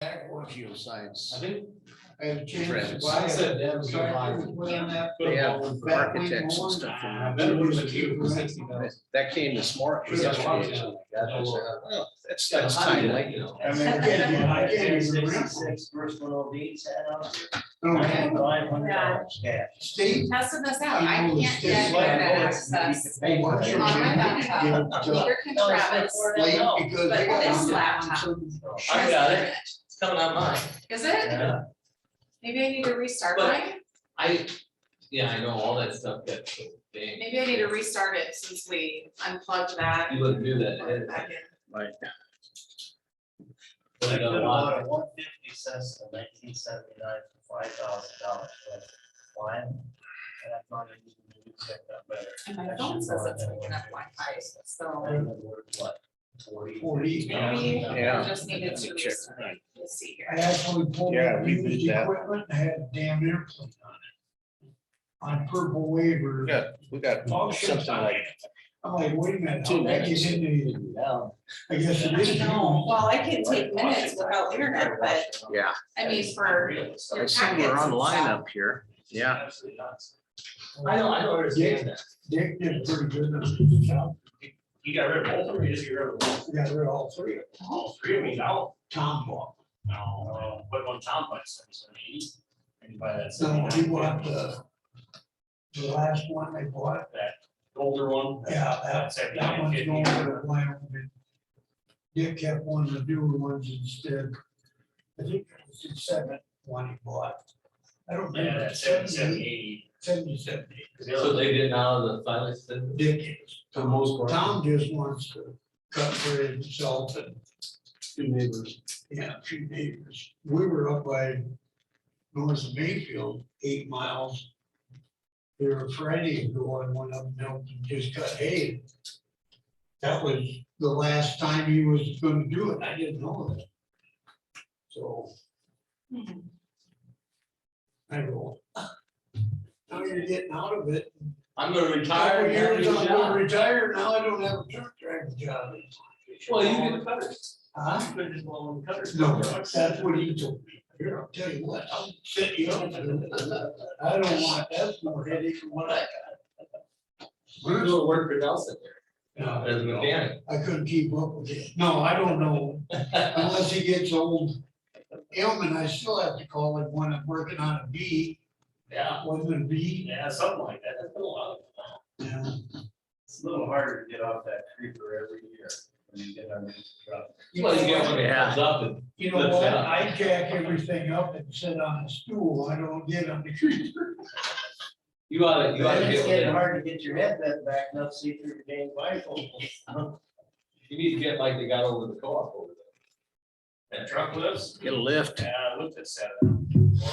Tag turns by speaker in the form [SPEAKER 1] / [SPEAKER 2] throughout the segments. [SPEAKER 1] geoscience.
[SPEAKER 2] I think,
[SPEAKER 3] And
[SPEAKER 1] Friends.
[SPEAKER 3] change.
[SPEAKER 2] I said that was your
[SPEAKER 3] Contractors
[SPEAKER 2] line.
[SPEAKER 3] went on that
[SPEAKER 2] Put
[SPEAKER 1] They
[SPEAKER 2] a
[SPEAKER 1] have
[SPEAKER 2] ball in for-
[SPEAKER 3] back
[SPEAKER 1] architects and
[SPEAKER 3] way
[SPEAKER 1] stuff.
[SPEAKER 3] more.
[SPEAKER 2] I bet it would have been two for sixty thousand.
[SPEAKER 1] That came this morning.
[SPEAKER 2] Yeah.
[SPEAKER 1] yesterday, it's like, that was, uh, well, That's, that's
[SPEAKER 2] How do you-
[SPEAKER 1] timely.
[SPEAKER 2] you know.
[SPEAKER 3] I mean, again, you- again, you remember,
[SPEAKER 4] Sixty-six personal beats had on.
[SPEAKER 3] okay,
[SPEAKER 4] Five hundred dollars cash.
[SPEAKER 3] state,
[SPEAKER 5] Testing this out, I
[SPEAKER 3] People
[SPEAKER 5] can't
[SPEAKER 3] just
[SPEAKER 5] get
[SPEAKER 3] like
[SPEAKER 5] internet
[SPEAKER 4] voting.
[SPEAKER 5] access
[SPEAKER 3] they want you to
[SPEAKER 5] on my laptop,
[SPEAKER 3] give to
[SPEAKER 5] neither can Travis.
[SPEAKER 3] Blake because
[SPEAKER 5] But
[SPEAKER 3] they got.
[SPEAKER 5] this
[SPEAKER 3] on
[SPEAKER 5] laptop-
[SPEAKER 3] certain-
[SPEAKER 2] I got it, it's coming on mine.
[SPEAKER 5] Is it?
[SPEAKER 4] Yeah.
[SPEAKER 5] Maybe I need to restart
[SPEAKER 2] But-
[SPEAKER 5] mine,
[SPEAKER 2] I, yeah, I know all that stuff gets so big.
[SPEAKER 5] maybe I need to restart it since we unplugged that.
[SPEAKER 2] You wouldn't do that, eh?
[SPEAKER 5] and plugged it back in.
[SPEAKER 1] Like,
[SPEAKER 4] They
[SPEAKER 2] Like a
[SPEAKER 4] could have
[SPEAKER 2] lot.
[SPEAKER 4] bought a one fifty cents in nineteen seventy-nine for five thousand dollars. Why? And I thought it was gonna be checked out better.
[SPEAKER 5] And my phone says it's picking up Wi-Fi,
[SPEAKER 4] I
[SPEAKER 5] so
[SPEAKER 4] don't know where it's what, forty?
[SPEAKER 3] Forty.
[SPEAKER 5] maybe
[SPEAKER 1] Yeah.
[SPEAKER 5] I just needed to
[SPEAKER 1] Let me check.
[SPEAKER 5] restart, we'll see
[SPEAKER 3] I
[SPEAKER 5] here.
[SPEAKER 3] actually pulled
[SPEAKER 1] Yeah,
[SPEAKER 3] up
[SPEAKER 1] we did
[SPEAKER 3] used
[SPEAKER 1] that.
[SPEAKER 3] equipment and had a damn airplane on it. On purple waiver.
[SPEAKER 1] Yeah. We got something like.
[SPEAKER 3] I'm like, wait a minute,
[SPEAKER 1] Two
[SPEAKER 3] how that gets into you? I guess it is.
[SPEAKER 5] No, well, I can take minutes without internet, but
[SPEAKER 1] Yeah.
[SPEAKER 5] I mean, for
[SPEAKER 1] I see we're online up here. Yeah.
[SPEAKER 2] I know, I don't understand that.
[SPEAKER 3] Dick did pretty good.
[SPEAKER 4] You got rid of both of them, or you just get rid of one?
[SPEAKER 3] Yeah, they're all three. of them.
[SPEAKER 4] All three of me out?
[SPEAKER 3] Tom bought.
[SPEAKER 4] No, what one Tom buy, seventy-seven eighty? And you buy that.
[SPEAKER 3] So he
[SPEAKER 4] 79.
[SPEAKER 3] bought the, the last one they bought.
[SPEAKER 4] That older one.
[SPEAKER 3] Yeah,
[SPEAKER 4] That's
[SPEAKER 3] that, that
[SPEAKER 4] seventy-nine
[SPEAKER 3] one's
[SPEAKER 4] fifty.
[SPEAKER 3] going to Wyoming. Dick kept one of the newer ones instead. I think it was the seventh one he bought. I don't
[SPEAKER 4] Yeah,
[SPEAKER 3] remember,
[SPEAKER 4] that seventy-seven
[SPEAKER 3] seventy-eight,
[SPEAKER 4] eighty.
[SPEAKER 3] seventy-seven.
[SPEAKER 2] So they did now the finally said.
[SPEAKER 3] Dick is.
[SPEAKER 2] For the most part.
[SPEAKER 3] Tom just wants to cut for himself and,
[SPEAKER 2] Two neighbors.
[SPEAKER 3] yeah, a few neighbors. We were up by north of Mayfield, eight miles. There were Friday ago and went up and helped him just cut hay. That was the last time he was gonna do it. I didn't know that. So
[SPEAKER 5] Mhm.
[SPEAKER 3] I go. Now you're getting out of it.
[SPEAKER 2] I'm gonna retire.
[SPEAKER 3] Couple
[SPEAKER 2] and have a
[SPEAKER 3] years,
[SPEAKER 2] new
[SPEAKER 3] I'm gonna
[SPEAKER 2] job.
[SPEAKER 3] retire. Now I don't have a truck driving job.
[SPEAKER 2] Well, you did the cutters.
[SPEAKER 3] Huh?
[SPEAKER 4] You could just blow on the cutters.
[SPEAKER 3] No, that's what he told me. Here, I'll tell you what, I'll set you up. I don't want, that's more headache than what I got.
[SPEAKER 2] We're doing work for Nelson there
[SPEAKER 3] No,
[SPEAKER 2] as a mechanic.
[SPEAKER 3] I couldn't keep up with it. No, I don't know, unless he gets old. Elman, I still have to call him when I'm working on a bee,
[SPEAKER 4] Yeah,
[SPEAKER 3] wasn't it a bee?
[SPEAKER 4] yeah, something like that. That's been a lot of.
[SPEAKER 3] Yeah.
[SPEAKER 4] It's a little harder to get off that creeper every year when you get on the truck.
[SPEAKER 2] Well, you get
[SPEAKER 3] know
[SPEAKER 2] one
[SPEAKER 3] what?
[SPEAKER 2] that comes up and.
[SPEAKER 3] You know
[SPEAKER 2] That's
[SPEAKER 3] what,
[SPEAKER 2] out.
[SPEAKER 3] I jack everything up and sit on a stool, I don't get on the creeper.
[SPEAKER 2] You oughta, you oughta
[SPEAKER 4] It's
[SPEAKER 2] get,
[SPEAKER 4] getting
[SPEAKER 2] one-
[SPEAKER 4] hard to get your head bent back enough, to see through the dang bifocal.
[SPEAKER 2] you need to get like they got over the co-op over there.
[SPEAKER 4] That truck lifts?
[SPEAKER 1] Get a lift.
[SPEAKER 4] Yeah, I looked at seven.
[SPEAKER 2] A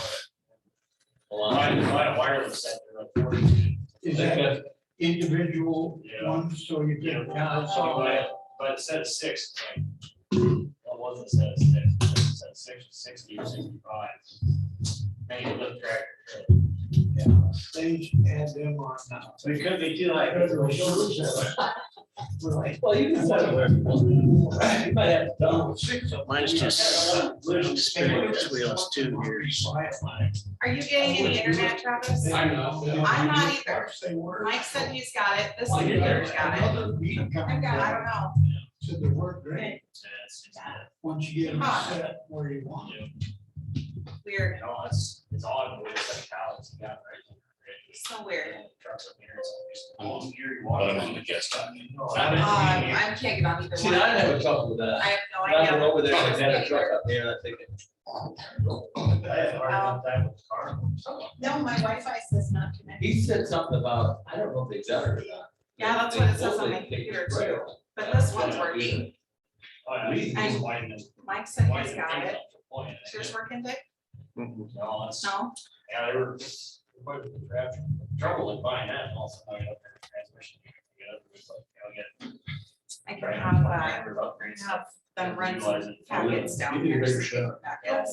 [SPEAKER 4] My,
[SPEAKER 2] lot.
[SPEAKER 4] my wireless set, they're like forty.
[SPEAKER 3] Is
[SPEAKER 2] They
[SPEAKER 3] that
[SPEAKER 2] got-
[SPEAKER 3] individual
[SPEAKER 4] Yeah.
[SPEAKER 3] ones, so you
[SPEAKER 4] Yeah, Oh,
[SPEAKER 3] can.
[SPEAKER 4] so by, by the set of six, it's like, that wasn't a set of six, it was a set of six, sixty or sixty-five. Now you look track.
[SPEAKER 3] Yeah, they add them on now.
[SPEAKER 4] So it could be too like.
[SPEAKER 2] Well, you can set it where you want. You might have to double.
[SPEAKER 1] Mine's just spinning its wheels too here.
[SPEAKER 5] Are you getting any internet, Travis?
[SPEAKER 2] I know.
[SPEAKER 5] I'm not either.
[SPEAKER 3] They were.
[SPEAKER 5] Mike said he's got it, this
[SPEAKER 2] Well, you're
[SPEAKER 5] computer's got it.
[SPEAKER 3] Another meeting
[SPEAKER 5] I've
[SPEAKER 3] coming
[SPEAKER 5] got, I
[SPEAKER 3] up,
[SPEAKER 5] don't know.
[SPEAKER 3] so they work great, once you get them
[SPEAKER 5] Huh.
[SPEAKER 3] set where you want.
[SPEAKER 5] Weird,
[SPEAKER 4] You know, it's, it's odd, but it's like how it's got right. here.
[SPEAKER 5] so weird.
[SPEAKER 4] Trucks up here, it's just a long year, you walk. No, I haven't
[SPEAKER 5] Um,
[SPEAKER 4] seen it.
[SPEAKER 5] I can't get on either
[SPEAKER 2] See,
[SPEAKER 5] one.
[SPEAKER 2] I'd have a
[SPEAKER 5] I
[SPEAKER 2] couple of that.
[SPEAKER 5] have no
[SPEAKER 2] I went
[SPEAKER 5] idea.
[SPEAKER 2] over there and had a truck up there, and I think,
[SPEAKER 4] I had a hard enough time with the car.
[SPEAKER 5] No, my Wi-Fi says not connected,
[SPEAKER 2] he said something about, I don't know if they done it or not.
[SPEAKER 5] Yeah, that's what it says on my computer, too. but this one's working.
[SPEAKER 4] Oh, yeah, we
[SPEAKER 5] I-
[SPEAKER 4] just widened this-
[SPEAKER 5] Mike said he's
[SPEAKER 4] widened the
[SPEAKER 5] got
[SPEAKER 4] thing
[SPEAKER 5] it.
[SPEAKER 4] up to the point, and
[SPEAKER 5] Is yours
[SPEAKER 4] it-
[SPEAKER 5] working, Dick?
[SPEAKER 1] Mhm.
[SPEAKER 4] No, it's,
[SPEAKER 5] No?
[SPEAKER 4] yeah, they were, quite a bit of trouble in buying that and also. I got their transmission. you know, it was like, you know, get-
[SPEAKER 5] I can
[SPEAKER 4] trying to
[SPEAKER 5] have,
[SPEAKER 4] find
[SPEAKER 5] uh,
[SPEAKER 4] drivers upgrades.
[SPEAKER 5] have them run
[SPEAKER 4] Utilize
[SPEAKER 5] some
[SPEAKER 4] it.
[SPEAKER 5] packets down here.
[SPEAKER 2] shot.
[SPEAKER 5] Back up.